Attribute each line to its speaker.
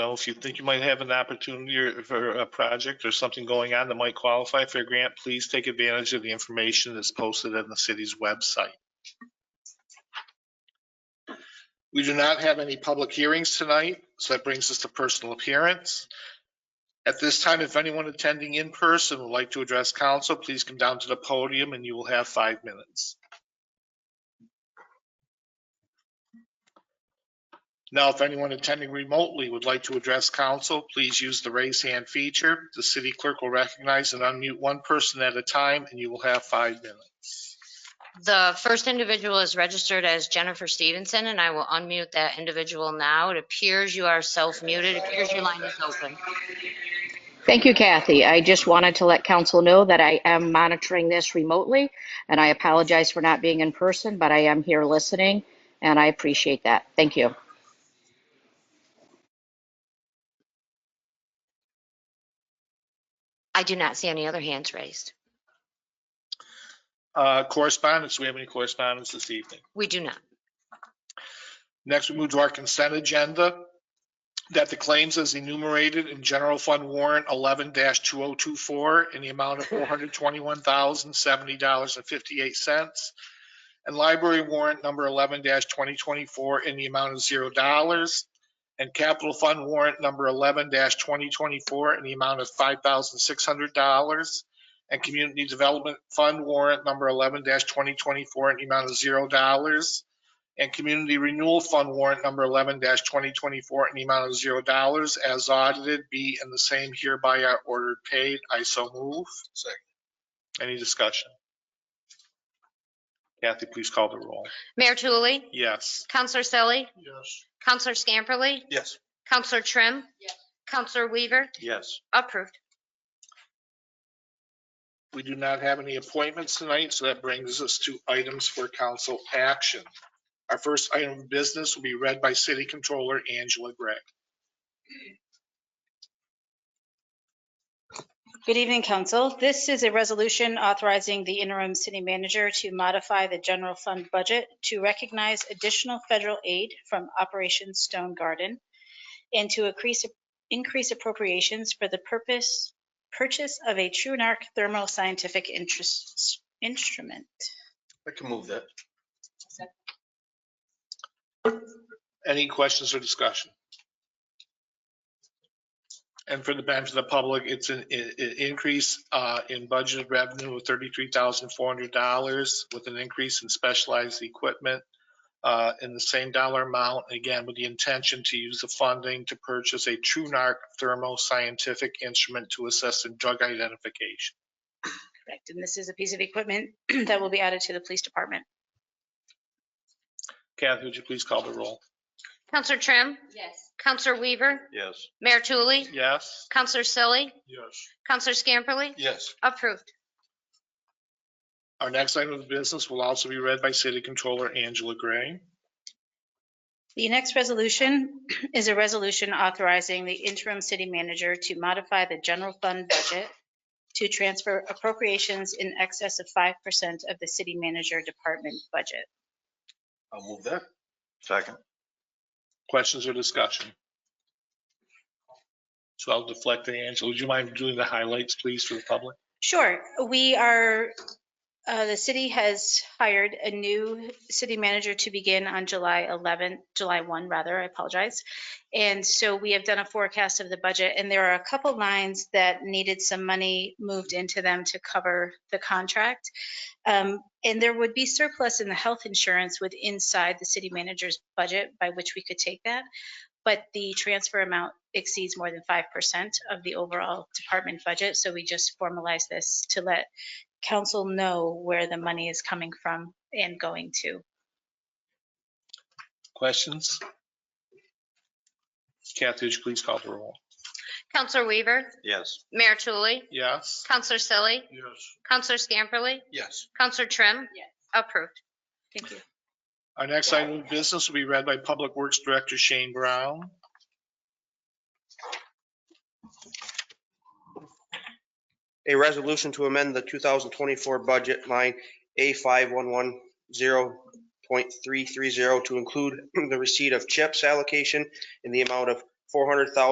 Speaker 1: know, if you think you might have an opportunity or for a project or something going on that might qualify for a grant, please take advantage of the information that's posted on the city's website. We do not have any public hearings tonight, so that brings us to personal appearance. At this time, if anyone attending in person would like to address council, please come down to the podium and you will have five minutes. Now, if anyone attending remotely would like to address council, please use the raise hand feature. The city clerk will recognize and unmute one person at a time, and you will have five minutes.
Speaker 2: The first individual is registered as Jennifer Stevenson, and I will unmute that individual now. It appears you are self-muted. It appears your line is open.
Speaker 3: Thank you, Kathy. I just wanted to let council know that I am monitoring this remotely, and I apologize for not being in person, but I am here listening, and I appreciate that. Thank you.
Speaker 2: I do not see any other hands raised.
Speaker 1: Uh, Correspondence, do we have any correspondence this evening?
Speaker 2: We do not.
Speaker 1: Next, we move to our consent agenda. That the claims as enumerated in General Fund Warrant 11-2024 in the amount of $421,070.58 and Library Warrant Number 11-2024 in the amount of $0 and Capital Fund Warrant Number 11-2024 in the amount of $5,600 and Community Development Fund Warrant Number 11-2024 in the amount of $0 and Community Renewal Fund warrant number 11-2024 in the amount of $0 as audited be and the same hereby are ordered paid. I so move. Second. Any discussion? Kathy, please call the roll.
Speaker 2: Mayor Tulley,
Speaker 1: Yes.
Speaker 2: Counselor Selly,
Speaker 1: Yes.
Speaker 2: Counselor Scamperly,
Speaker 1: Yes.
Speaker 2: Counselor Trim, Counselor Weaver,
Speaker 1: Yes.
Speaker 2: approved.
Speaker 1: We do not have any appointments tonight, so that brings us to items for council action. Our first item of business will be read by City Controller Angela Gray.
Speaker 4: Good evening, council. This is a resolution authorizing the interim city manager to modify the general fund budget to recognize additional federal aid from Operation Stone Garden and to increase, increase appropriations for the purpose, purchase of a TruNarc thermal scientific interest, instrument.
Speaker 5: I can move that.
Speaker 1: Any questions or discussion? And for the benefit of the public, it's an i- i- increase uh, in budgeted revenue of $33,400 with an increase in specialized equipment uh, in the same dollar amount, again, with the intention to use the funding to purchase a TruNarc thermo scientific instrument to assess in drug identification.
Speaker 4: Correct. And this is a piece of equipment that will be added to the police department.
Speaker 1: Kathy, would you please call the roll?
Speaker 2: Counselor Trim,
Speaker 4: Yes.
Speaker 2: Counselor Weaver,
Speaker 5: Yes.
Speaker 2: Mayor Tulley,
Speaker 1: Yes?
Speaker 2: Counselor Selly,
Speaker 1: Yes.
Speaker 2: Counselor Scamperly,
Speaker 5: Yes.
Speaker 2: approved.
Speaker 1: Our next item of business will also be read by City Controller Angela Gray.
Speaker 4: The next resolution is a resolution authorizing the interim city manager to modify the general fund budget to transfer appropriations in excess of 5% of the city manager department budget.
Speaker 5: I'll move that. Second.
Speaker 1: Questions or discussion? So I'll deflect to Angela. Would you mind doing the highlights, please, for the public?
Speaker 4: Sure, we are, uh, the city has hired a new city manager to begin on July 11, July 1, rather, I apologize. And so we have done a forecast of the budget, and there are a couple lines that needed some money moved into them to cover the contract. Um, And there would be surplus in the health insurance with inside the city manager's budget by which we could take that. But the transfer amount exceeds more than 5% of the overall department budget. So we just formalize this to let council know where the money is coming from and going to.
Speaker 1: Questions? Kathy, would you please call the roll?
Speaker 2: Counselor Weaver,
Speaker 5: Yes.
Speaker 2: Mayor Tulley,
Speaker 1: Yes?
Speaker 2: Counselor Selly,
Speaker 1: Yes.
Speaker 2: Counselor Scamperly,
Speaker 5: Yes.
Speaker 2: Counselor Trim,
Speaker 4: Yes.
Speaker 2: approved.
Speaker 4: Thank you.
Speaker 1: Our next item of business will be read by Public Works Director Shane Brown.
Speaker 6: A resolution to amend the 2024 budget line A5110.330 to include the receipt of CHIPS allocation in the amount of 400,000.